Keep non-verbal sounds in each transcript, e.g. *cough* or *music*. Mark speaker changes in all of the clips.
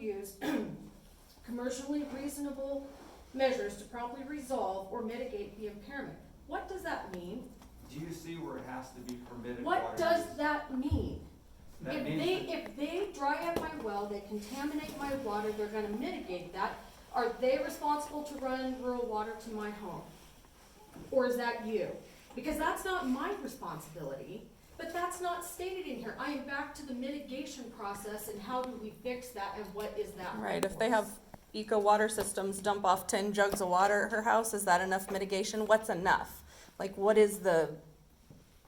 Speaker 1: use *clears throat* commercially reasonable measures to promptly resolve or mitigate the impairment. What does that mean?
Speaker 2: Do you see where it has to be permitted water?
Speaker 1: What does
Speaker 2: use?
Speaker 1: that mean?
Speaker 2: That
Speaker 1: If
Speaker 2: means
Speaker 1: they,
Speaker 2: that-
Speaker 1: if they dry up my well, they contaminate my water, they're gonna mitigate that, are they responsible to run rural water to my home? Or is that you? Because that's not my responsibility, but that's not stated in here. I am back to the mitigation process and how do we fix that and what is that?
Speaker 3: Right, if they have eco water systems dump off ten jugs of water at her house, is that enough mitigation? What's enough? Like, what is the,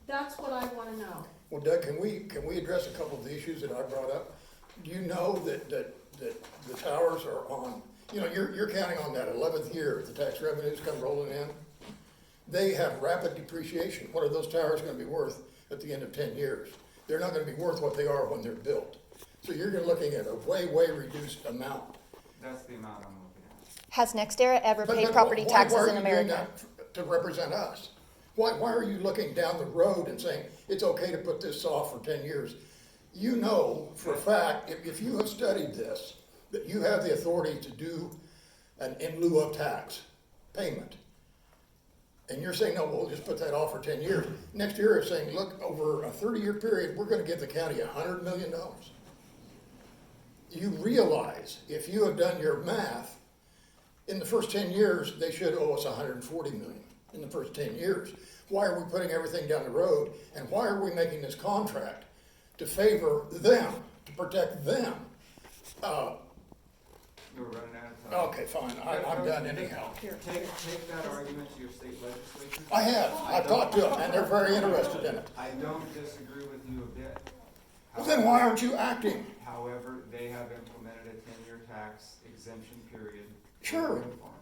Speaker 1: That's what I wanna know.
Speaker 4: Well, Doug, can we, can we address a couple of the issues that I brought up? Do you know that, that, that the towers are on, you know, you're, you're counting on that eleventh year, the tax revenues come rolling in? They have rapid depreciation. What are those towers gonna be worth at the end of ten years? They're not gonna be worth what they are when they're built. So you're gonna looking at a way, way reduced amount.
Speaker 2: That's the amount I'm looking at.
Speaker 5: Has NextEra ever
Speaker 4: But-
Speaker 5: paid
Speaker 4: but
Speaker 5: property
Speaker 4: why- why are
Speaker 5: taxes in
Speaker 4: you doing
Speaker 5: America?
Speaker 4: that To represent us? Why, why are you looking down the road and saying, it's okay to put this off for ten years? You know for a fact, if, if you have studied this, that you have the authority to do an in lieu of tax payment. And you're saying, no, we'll just put that off for ten years. Next year, it's saying, look, over a thirty-year period, we're gonna give the county a hundred million dollars. You realize, if you have done your math, in the first ten years, they should owe us hundred and forty million in the first ten years. Why are we putting everything down the road and why are we making this contract to favor them, to protect them? Uh,
Speaker 2: You were running out of time.
Speaker 4: okay, fine, I, I'm done anyhow.
Speaker 2: Take, take that argument to your state legislature.
Speaker 4: I have, I've talked to them and they're very interested in it.
Speaker 2: I don't disagree with you a bit.
Speaker 4: Well, then why aren't you acting?
Speaker 2: However, they have implemented a ten-year tax exemption period. for
Speaker 4: Sure.
Speaker 2: wind farms.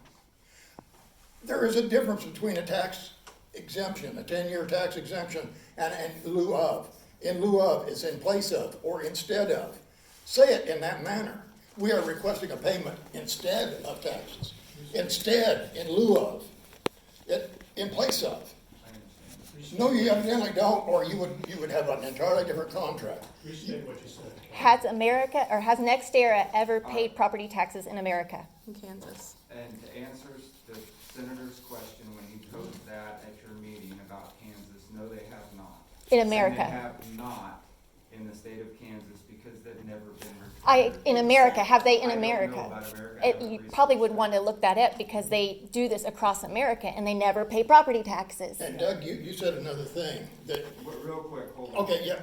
Speaker 4: There is a difference between a tax exemption, a ten-year tax exemption, and in lieu of. In lieu of is in place of or instead of. Say it in that manner. We are requesting a payment instead of taxes. Instead, in lieu of, it, in place of.
Speaker 2: I understand.
Speaker 4: No, you evidently don't, or you would, you would have an entirely different contract.
Speaker 6: Restate what you said.
Speaker 5: Has America, or has NextEra ever
Speaker 4: Uh.
Speaker 5: paid property taxes in America?
Speaker 3: in Kansas?
Speaker 2: And to answer s- the senator's question when he posed that at your meeting about Kansas, no, they have not.
Speaker 5: In
Speaker 2: And
Speaker 5: America.
Speaker 2: they have not in the state of Kansas because they've never been required.
Speaker 5: I, in America, have they in
Speaker 2: I don't know
Speaker 5: America?
Speaker 2: about America. I
Speaker 5: It,
Speaker 2: haven't
Speaker 5: you
Speaker 2: researched
Speaker 5: probably would
Speaker 2: that.
Speaker 5: want to look that up because they do this across America and they never pay property taxes.
Speaker 4: And Doug, you, you said another thing that,
Speaker 2: Wait, Real quick, hold on.
Speaker 4: okay, yeah,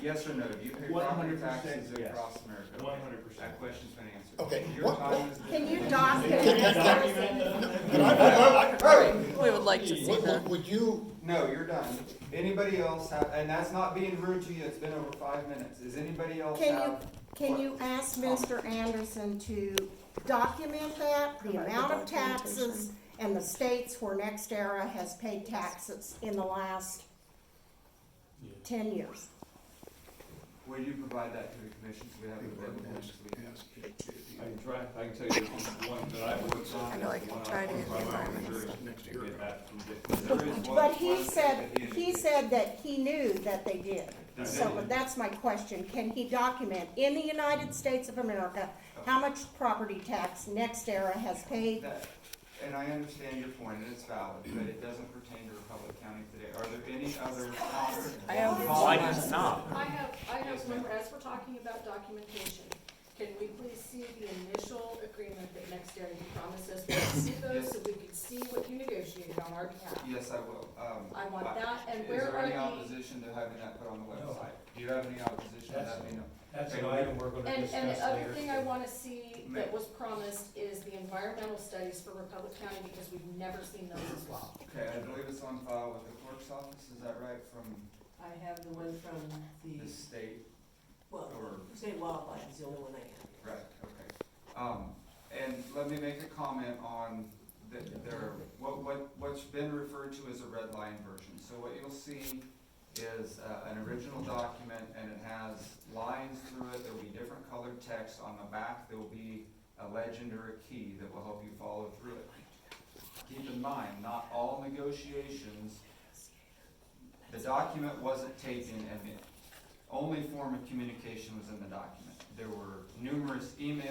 Speaker 2: Yes or no, do you pay property
Speaker 6: 100%
Speaker 2: taxes
Speaker 6: yes.
Speaker 2: across America? Okay,
Speaker 6: 100%.
Speaker 2: That question's been answered.
Speaker 4: Okay,
Speaker 2: Your
Speaker 4: what-
Speaker 2: time is.
Speaker 1: Can you dock
Speaker 4: Can-
Speaker 1: it?
Speaker 4: can-
Speaker 6: Document
Speaker 3: We would like to see
Speaker 4: would,
Speaker 3: that.
Speaker 4: would- would you,
Speaker 2: No, you're done. Anybody else have, and that's not being rude to you, it's been over five minutes. Is anybody else
Speaker 7: Can you,
Speaker 2: have?
Speaker 7: can you ask Mr. Anderson to document that, the
Speaker 3: Provide the
Speaker 7: amount of taxes
Speaker 3: documentation.
Speaker 7: and the states where NextEra has paid taxes in the last
Speaker 6: Yeah.
Speaker 7: ten years?
Speaker 2: Will you provide that to the commission so we have it available next week?
Speaker 8: I can try, I can tell you the one that I worked on.
Speaker 3: I know, I can try to get the environment
Speaker 8: Next year. There is one-
Speaker 7: But he
Speaker 2: one
Speaker 7: said,
Speaker 2: that
Speaker 7: he said that he knew that they did.
Speaker 2: They
Speaker 7: So
Speaker 2: did.
Speaker 7: that's my question, can he document in the United States of America, how much property tax NextEra has paid?
Speaker 2: That- And I understand your point, and it's valid, but it doesn't pertain to Republic County today. Are there any other?
Speaker 3: I
Speaker 1: I
Speaker 3: have
Speaker 1: have, I have, one more. as we're talking about documentation, can we please see the initial agreement that next year you promised us, we can see those, so we can see what you negotiated on our behalf?
Speaker 2: Yes, I will. Um,
Speaker 1: I want
Speaker 2: but
Speaker 1: that, and where
Speaker 2: Is there
Speaker 1: are
Speaker 2: any
Speaker 1: the-
Speaker 2: opposition to having that put on the website? Do you have any opposition to
Speaker 6: That's-
Speaker 2: that being?
Speaker 6: That's an item we're gonna
Speaker 1: And,
Speaker 6: discuss later.
Speaker 1: and the other thing I wanna see that was promised is the environmental studies for Republic County, because we've never seen those as well.
Speaker 2: Okay, I believe it's on file with the clerk's office, is that right, from
Speaker 9: I have the one from the,
Speaker 2: the state
Speaker 9: well,
Speaker 2: or,
Speaker 9: state wildlife is the only one I have.
Speaker 2: right, okay. Um, and let me make a comment on the, there, what, what, what's been referred to as a red line version. So what you'll see is, uh, an original document and it has lines through it, there'll be different colored text on the back, there'll be a legend or a key that will help you follow through it. Keep in mind, not all negotiations, the document wasn't taken and the only form of communication was in the document. There were numerous emails.